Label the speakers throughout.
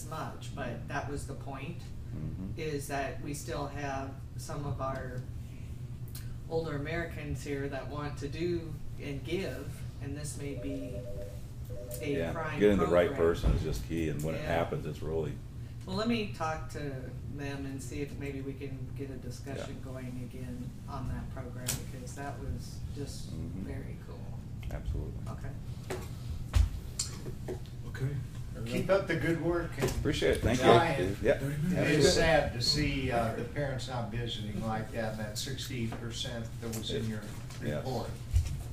Speaker 1: much,
Speaker 2: Mm-hmm.
Speaker 1: but that was the point,
Speaker 2: Mhm.
Speaker 1: is that we still have some of our older Americans here that want to do and give, and this may be a prime
Speaker 2: Yeah, getting the right
Speaker 1: program.
Speaker 2: person is just key, and when it
Speaker 1: Yeah.
Speaker 2: happens, it's really,
Speaker 1: Well, let me talk to them and see if maybe we can get a discussion going again on that program, because that was just
Speaker 2: Mhm.
Speaker 1: very cool.
Speaker 2: absolutely.
Speaker 1: Okay.
Speaker 3: Okay.
Speaker 4: Keep up the good work. and
Speaker 2: Appreciate it, thank
Speaker 4: try
Speaker 2: you.
Speaker 4: it.
Speaker 2: Yeah.
Speaker 4: It's
Speaker 2: absolutely.
Speaker 4: sad to see uh, the parents not visiting like that, that sixty percent that was in your
Speaker 2: Yes.
Speaker 4: report.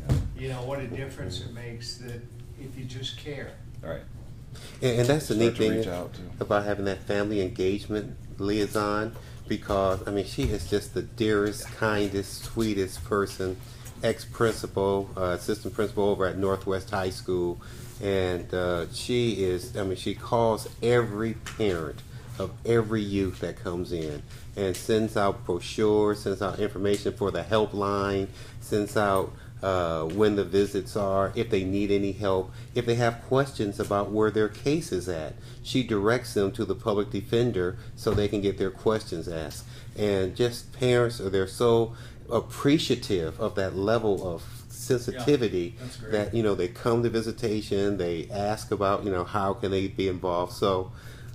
Speaker 2: Yeah.
Speaker 4: You know, what a difference it makes that if you just care.
Speaker 2: All right.
Speaker 5: And, and that's the
Speaker 2: Start
Speaker 5: neat
Speaker 2: to
Speaker 5: thing
Speaker 2: reach out to-
Speaker 5: about having that family engagement liaison because I mean she is just the dearest, kindest, sweetest person, ex principal, uh, assistant principal over at Northwest High School, and uh, she is I mean she calls every parent of every youth that comes in and sends out brochures, sends out information for the helpline, sends out uh, when the visits are, if they need any help, if they have questions about where their case is at. She directs them to the public defender so they can get their questions asked. And just parents are they're so appreciative of that level of sensitivity
Speaker 3: that's great.
Speaker 5: that you know they come to visitation, they ask about you know how can they be involved. So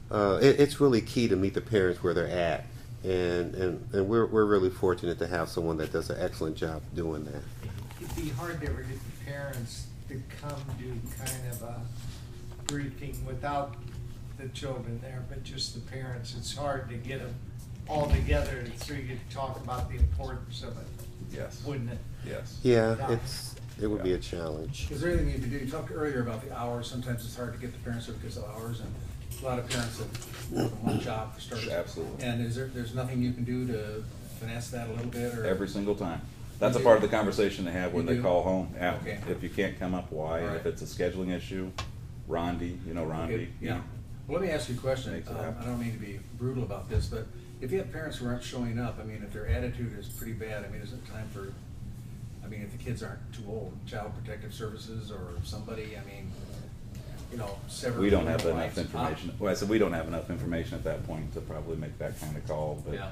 Speaker 5: uh, it, it's really key to meet the parents where they're at. And, and, and we're, we're really fortunate to have someone that does an excellent job doing that.
Speaker 4: It'd be hard to ever get the parents to come do kind of a briefing without the children there, but just the parents. It's hard to get them all together so you could talk about the importance of it,
Speaker 2: Yes,
Speaker 4: wouldn't it?
Speaker 2: yes.
Speaker 5: Yeah,
Speaker 4: Yeah.
Speaker 5: it's, it would be
Speaker 2: Yeah.
Speaker 5: a challenge.
Speaker 3: Is there anything you can do? You talked earlier about the hours. Sometimes it's hard to get the parents there because of hours, and a lot of parents have more than one job for starters.
Speaker 2: Absolutely.
Speaker 3: And is there, there's nothing you can do to finesse that a little bit, or?
Speaker 2: Every single time. That's a
Speaker 3: You
Speaker 2: part of
Speaker 3: do?
Speaker 2: the conversation they have when
Speaker 3: You
Speaker 2: they
Speaker 3: do?
Speaker 2: call home. Yeah.
Speaker 3: Okay.
Speaker 2: If you can't come up, why? And if
Speaker 3: Alright.
Speaker 2: it's a scheduling issue, Rondi, you know Rondi.
Speaker 3: Okay, Yeah. Well, let me ask you a question.
Speaker 2: Makes it
Speaker 3: Um,
Speaker 2: happen.
Speaker 3: I don't mean to be brutal about this, but if you have parents who aren't showing up, I mean, if their attitude is pretty bad, I mean, is it time for, I mean, if the kids aren't too old, Child Protective Services or somebody, I mean, you know, sever.
Speaker 2: We don't have
Speaker 3: their
Speaker 2: enough
Speaker 3: lives.
Speaker 2: information. Well, I said, we don't have enough information at that point to probably make that kind of call,
Speaker 3: Huh?
Speaker 2: but.
Speaker 3: Yeah.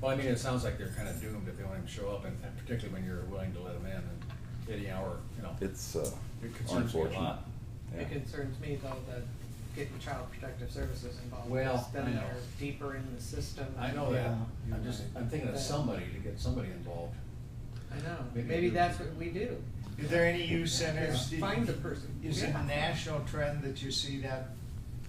Speaker 3: Well, I mean, it sounds like they're kind of doomed if they don't even show up, and and particularly when you're willing to let them in and any hour, you know.
Speaker 2: It's uh,
Speaker 3: It concerns me a
Speaker 2: unfortunate.
Speaker 3: lot.
Speaker 2: Yeah.
Speaker 1: It concerns me though that getting child protective services involved,
Speaker 3: Well,
Speaker 1: because
Speaker 3: I
Speaker 1: then
Speaker 3: know.
Speaker 1: they're deeper in the system.
Speaker 3: I know that.
Speaker 4: Yeah.
Speaker 3: I'm just, I'm thinking of somebody to get somebody involved.
Speaker 1: I know,
Speaker 3: Maybe
Speaker 1: maybe
Speaker 3: do-
Speaker 1: that's what we do.
Speaker 4: Is there any youth centers?
Speaker 1: Yeah, find the person.
Speaker 4: Is it
Speaker 1: Yeah.
Speaker 4: a national trend that you see that?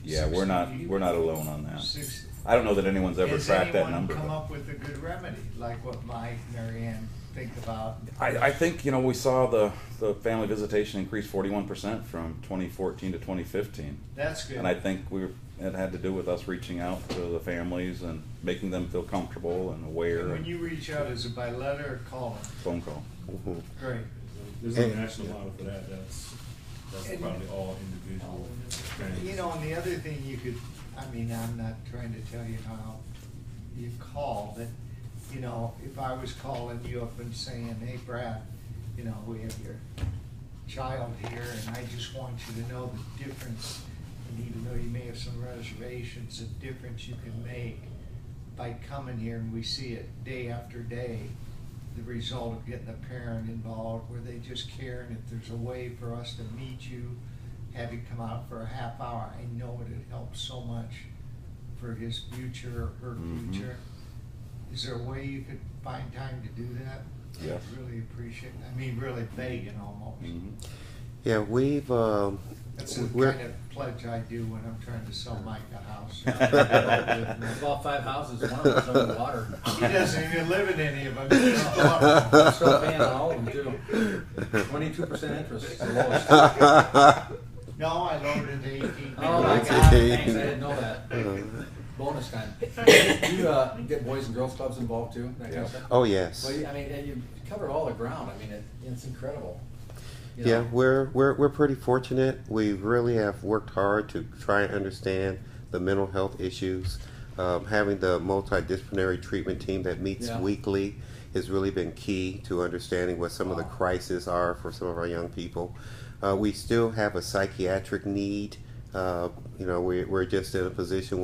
Speaker 2: Yeah, we're not,
Speaker 4: 60
Speaker 2: we're not alone on that.
Speaker 4: Six-
Speaker 2: I don't know that anyone's ever
Speaker 4: Has
Speaker 2: tracked that number.
Speaker 4: anyone
Speaker 2: but-
Speaker 4: come up with a good remedy, like what Mike, Mary Ann think about?
Speaker 2: I, I think, you know, we saw the, the family visitation increase forty-one percent from twenty fourteen to twenty fifteen.
Speaker 4: That's good.
Speaker 2: And I think we, were- it had to do with us reaching out to the families and making them feel comfortable and
Speaker 4: And
Speaker 2: aware
Speaker 4: When
Speaker 2: and
Speaker 4: you reach out, is it by letter or call?
Speaker 2: phone call.
Speaker 5: Mhm.
Speaker 4: Great.
Speaker 6: There's no
Speaker 5: And-
Speaker 6: national model for that, that's, that's
Speaker 4: And- Oh,
Speaker 6: probably all individual things.
Speaker 4: You know, and the other thing you could, I mean, I'm not trying to tell you how you call, but, you know, if I was calling you up and saying, hey Brad, you know, we have your child here and I just want you to know the difference, and even though you may have some reservations, the difference you can make by coming here and we see it day after day, the result of getting a parent involved where they just care and if there's a way for us to meet you, have you come out for a half hour, I know it would help so much for his future or her
Speaker 2: Mhm.
Speaker 4: future. Is there a way you could find time to do that?
Speaker 2: Yes.
Speaker 4: I'd Really appreciate, I mean, really begging almost.
Speaker 2: Mhm.
Speaker 5: Yeah, we've, um,
Speaker 4: That's the
Speaker 5: we're,
Speaker 4: kind of pledge I do when I'm trying to sell Mike a house.
Speaker 3: I bought five houses, one of them's underwater.
Speaker 4: He doesn't even live in any of them. He's still up.
Speaker 3: That's what I'm paying on all of them too. Twenty-two percent interest is the lowest. Oh
Speaker 4: No, I lowered it to eighteen.
Speaker 3: my god, thanks, I didn't know that. Bonus time. Do you, uh, get Boys and Girls Clubs involved too, that kind of stuff?
Speaker 5: oh, yes.
Speaker 3: Well, you- I mean, and you cover all the ground, I mean, it, it's incredible. You
Speaker 5: Yeah,
Speaker 3: know?
Speaker 5: we're, we're, we're pretty fortunate. We really have worked hard to try and understand the mental health issues. Um, having the multidisciplinary treatment team that meets
Speaker 3: Yeah.
Speaker 5: weekly has really been key to understanding what some of the
Speaker 3: Wow.
Speaker 5: crises are for some of our young people. Uh, we still have a psychiatric need. Uh, you know, we, we're just in a position